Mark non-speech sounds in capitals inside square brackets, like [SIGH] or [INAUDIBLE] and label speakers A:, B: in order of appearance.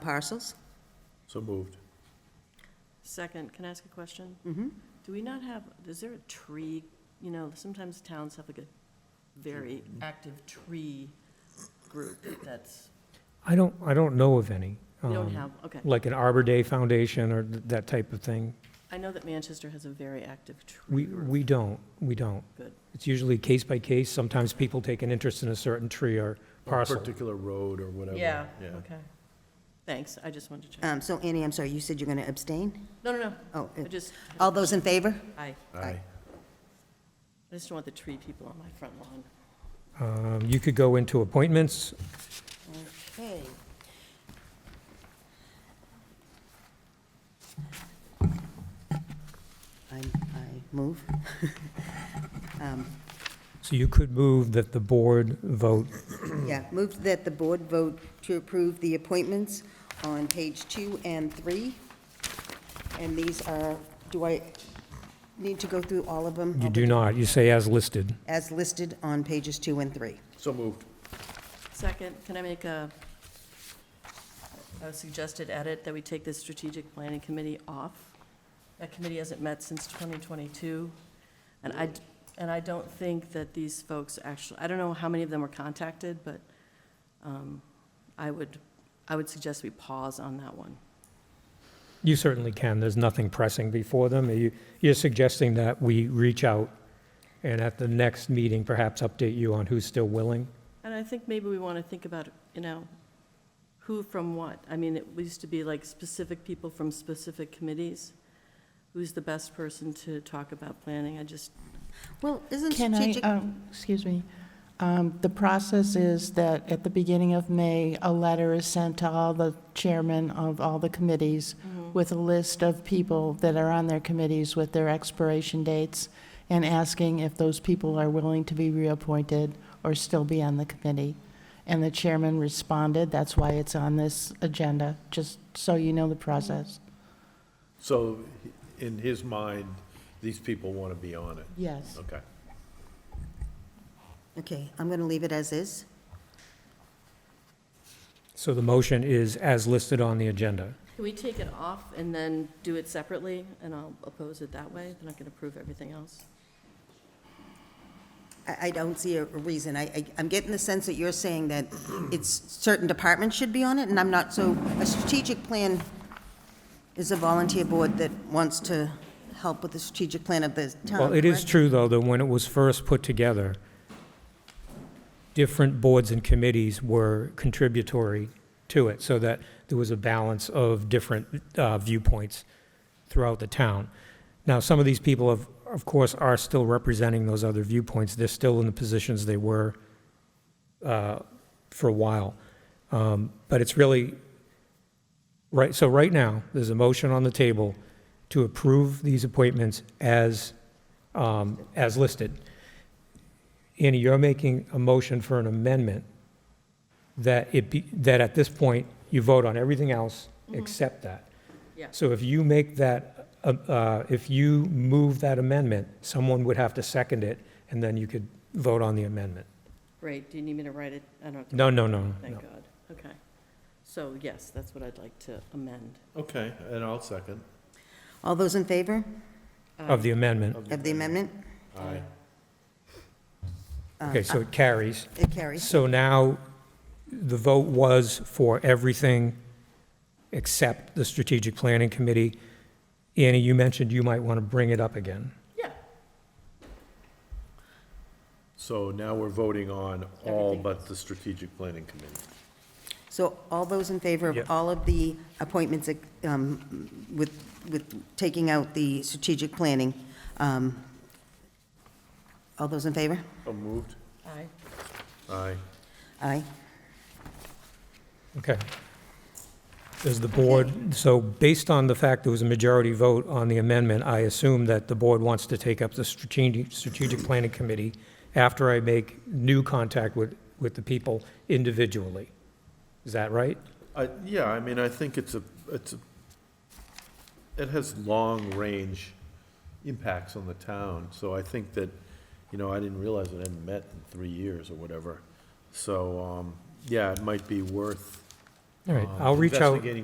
A: parcels?
B: So moved.
C: Second, can I ask a question? Mm-hmm. Do we not have, is there a tree, you know, sometimes towns have like a very
D: Mm-hmm.
C: active tree group that's,
D: I don't, I don't know of any.
C: we
D: um,
C: don't have, okay.
D: Like an Arbor Day Foundation or th- that type of thing.
C: I know that Manchester has a very active tree
D: We,
C: group.
D: we don't, we don't.
C: Good.
D: It's usually case by case. Sometimes people take an interest in a certain tree or parcel.
B: Particular road or whatever.
C: Yeah, okay. Thanks, I just wanted to check.
A: Um, So Annie, I'm sorry, you said you're going to abstain?
C: No, no, no,
A: Oh,
C: I
A: uh,
C: just,
A: all those in favor?
C: I,
B: Aye.
C: I just don't want the tree people on my front lawn.
D: Um, You could go into appointments.
A: Okay. I, I move. [LAUGHS] Um,
D: So you could move that the board vote.
A: Yeah, move that the board vote to approve the appointments on page two and three. And these are, do I need to go through all of them?
D: You do not. You say as listed.
A: As listed on pages two and three.
B: So moved.
C: Second, can I make a, a suggested edit that we take the strategic planning committee off? That committee hasn't met since 2022, and I, d- and I don't think that these folks actually, I don't know how many of them were contacted, but um, I would, I would suggest we pause on that one.
D: You certainly can. There's nothing pressing before them. You- You're suggesting that we reach out and at the next meeting perhaps update you on who's still willing?
C: And I think maybe we want to think about, you know, who from what? I mean, it used to be like specific people from specific committees. Who's the best person to talk about planning? I just,
A: Well, isn't
E: Can I,
A: strategic,
E: um, excuse me, Um, the process is that at the beginning of May, a letter is sent to all the chairmen of all the committees with a list of people that are on their committees with their expiration dates and asking if those people are willing to be reappointed or still be on the committee. And the chairman responded, that's why it's on this agenda, just so you know the process.
B: So in his mind, these people want to be on it.
E: Yes.
B: Okay.
A: okay, I'm going to leave it as is.
D: So the motion is as listed on the agenda.
C: Can we take it off and then do it separately, and I'll oppose it that way, then I can approve everything else?
A: I, I don't see a reason. I, I- I'm getting the sense that you're saying that it's, certain departments should be on it, and I'm not, so a strategic plan is a volunteer board that wants to help with the strategic plan of the town,
D: Well, it is
A: correct?
D: true, though, that when it was first put together, different boards and committees were contributory to it, so that there was a balance of different uh, viewpoints throughout the town. Now, some of these people, of, of course, are still representing those other viewpoints. They're still in the positions they were uh, for a while. Um, But it's really, right, so right now, there's a motion on the table to approve these appointments as, um, as listed. Annie, you're making a motion for an amendment that it be, that at this point, you vote on everything else except that.
C: Yeah.
D: So if you make that, uh, uh, if you move that amendment, someone would have to second it, and then you could vote on the amendment.
C: Great, do you need me to write it? I don't have to.
D: No, no, no, no.
C: Thank God, okay. So, yes, that's what I'd like to amend.
B: Okay, and I'll second.
A: All those in favor
D: of the amendment.
A: of the amendment?
B: Aye.
D: Okay, so it carries.
A: It carries.
D: So now, the vote was for everything except the Strategic Planning Committee. Annie, you mentioned you might want to bring it up again.
C: Yeah.
B: So now we're voting on all
C: Everything.
B: but the strategic planning committee.
A: So all those in favor
D: Yeah.
A: of all of the appointments uh, um, with, with taking out the strategic planning, um, all those in favor?
B: So moved.
C: Aye.
B: Aye.
A: Aye.
D: Okay. Does the board, so based on the fact there was a majority vote on the amendment, I assume that the board wants to take up the Strategic, Strategic Planning Committee after I make new contact with, with the people individually. Is that right?
B: I, yeah, I mean, I think it's a, it's a, it has long-range impacts on the town, so I think that, you know, I didn't realize it hadn't met in three years or whatever. So, um, yeah, it might be worth
D: All right,
B: um,
D: I'll reach out.
B: Investigating